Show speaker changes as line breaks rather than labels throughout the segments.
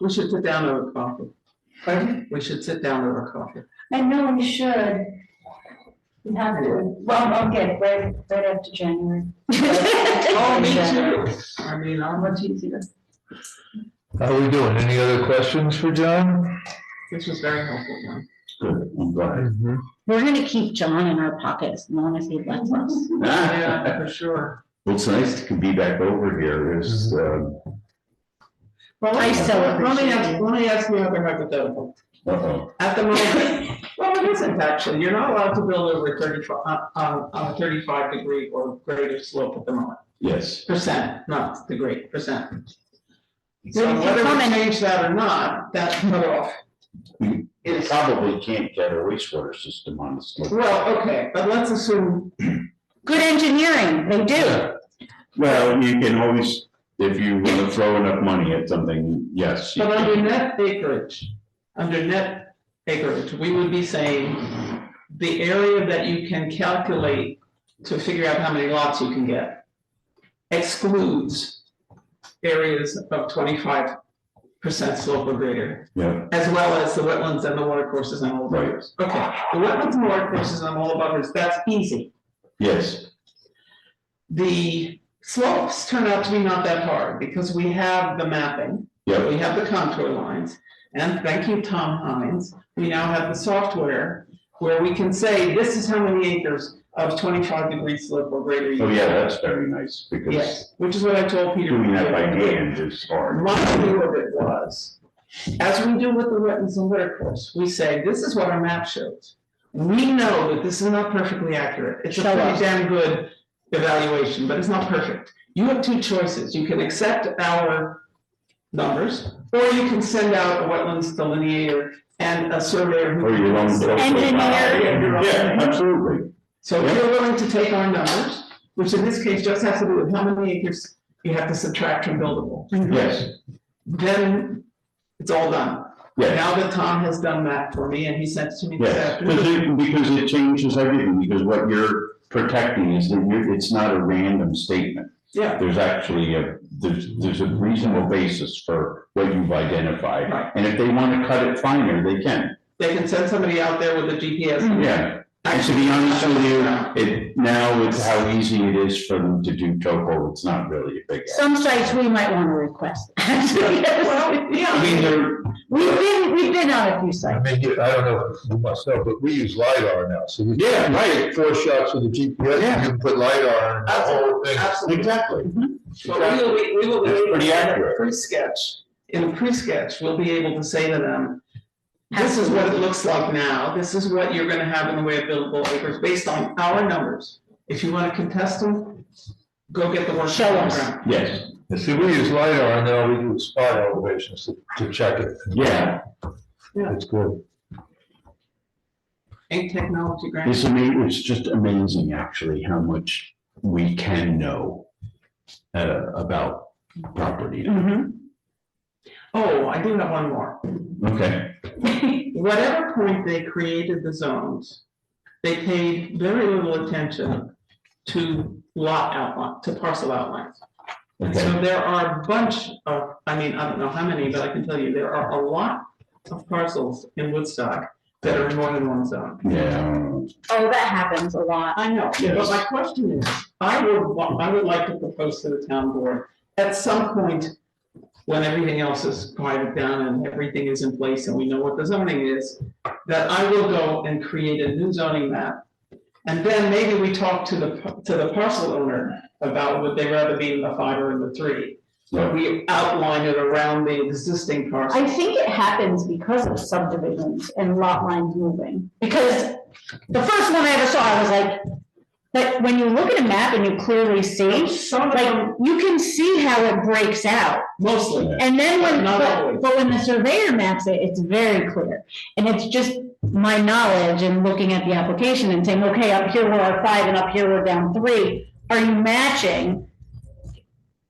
We should sit down over coffee.
Pardon?
We should sit down over coffee.
I know we should. We have to, well, okay, right, right after January.
Oh, me too. I mean, I'm much easier.
How are we doing? Any other questions for John?
This was very helpful, John.
Good, I'm glad.
Mm-hmm.
We're gonna keep John in our pockets as long as he lets us.
Yeah, for sure.
Well, it's nice to be back over here, it's, uh,
Well, let me-
I so
Let me
appreciate
ask,
you.
let me ask you another hypothetical.
uh, uh-oh,
At the moment, well, it isn't actually, you're not allowed to build over thirty-five, uh, uh, on a thirty-five degree or greater slope at the moment.
yes.
Percent, not degree, percent. So
Well, you can
whether we
comment-
change that or not, that's cut off.
It probably can't get a wastewater system on this. location.
Well, okay, but let's assume,
Good engineering, they do.
Well, you can always, if you want to throw enough money at something, yes. you
but
can.
under net acreage, under net acreage, we would be saying the area that you can calculate to figure out how many lots you can get excludes areas of twenty-five percent slope or greater.
Yeah,
As well as the wetlands and the water courses and all the
Right.
buffers. Okay, the wetlands and water courses and all the buffers, that's easy.
yes,
The slopes turn out to be not that hard because we have the mapping,
yeah,
we have the contour lines. And thank you, Tom Hines, we now have the software where we can say, this is how many acres of twenty-five degree slope or greater. you
oh, yeah,
have."
that's very nice, because
Yes, which is what I told Peter.
doing that by hand is hard.
My view of it was, as we do with the wetlands and water course, we say, this is what our map shows. We know that this is not perfectly accurate, it's a
Show
pretty
us.
damn good evaluation, but it's not perfect. You have two choices, you can accept our numbers, or you can send out a wetlands delineator and a surveyor. who
Or your own.
Engineer.
Yeah, absolutely,
So if you're willing to take our numbers, which in this case just has to do with how many acres you have to subtract from buildable,
Mm-hmm.
yes,
then it's all done.
yes,
Now that Tom has done that for me and he sent it to me this
yes, because
afternoon.
it, because it changes everything, because what you're protecting is that you're, it's not a random statement.
Yeah,
there's actually a, there's, there's a reasonable basis for what you've
Right.
identified. And if they want to cut it finer, they can.
they can send somebody out there with a
Mm-hmm.
GPS.
Yeah. And to be honest with you, it, now with how easy it is for them to do topo, it's not really a big.
Some sites we might wanna request.
Well,
I mean,
yeah,
they're,
We've been, we've been on a few
I
sites.
mean, you- I don't know if you myself, but we use LiDAR now, so we.
Yeah, right.
Four shots of the GPS,
Yeah.
you can put LiDAR on the whole thing.
absolutely.
exactly.
But we will, be- we will be
It's
able
pretty
to, in a
accurate.
pre-sketch, in a pre-sketch, we'll be able to say to them, this is what it looks like now, this is what you're gonna have in the way of buildable acres based on our numbers. If you wanna contest them, go get the work.
Show us.
Yes,
See, we use LiDAR now, we do spot elevations to, to check it.
yeah,
It's good.
Ain't technology grand.
it's amazing, it's just amazing actually how much we can know uh, about property.
Mhm.
Oh, I do have one more.
Okay,
whatever point they created the zones, they paid very little attention to lot outline, to parcel outlines. And
okay.
so there are a bunch of, I mean, I don't know how many, but I can tell you, there are a lot of parcels in Woodstock that are in more than one zone.
Yeah,
Oh, that happens a lot.
I know, but
Yes.
my question is, I would, wa- I would like to propose to the town board, at some point, when everything else is quieted down and everything is in place and we know what the zoning is, that I will go and create a new zoning map. And then maybe we talk to the, p- to the parcel owner about would they rather be in the five or in the three.
Yeah.
We outline it around the existing parcel.
I think it happens because of subdivisions and lot lines moving, because the first one I ever saw, I was like, like, when you look at a map and you clearly see,
Some of
like,
them,
you can see how it breaks out.
mostly,
And then when,
Not
but,
always.
but when the surveyor maps it, it's very clear. And it's just my knowledge and looking at the application and saying, okay, up here we're at five and up here we're down three. Are you matching?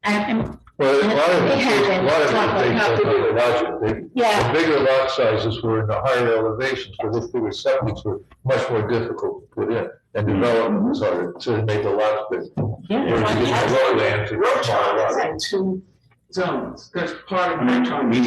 And, and,
Well, a lot of
It
it, a lot
happens.
of it, they,
Have to do
they, logic. They-
yeah.
The bigger lot sizes were in the higher elevations, but those bigger septics were much more difficult to put in. And development was harder, so they made the lots bigger.
Yeah.
Whereas you get the lowlands, it's smaller lots.
two zones, that's part of my
I
trying to.
mean,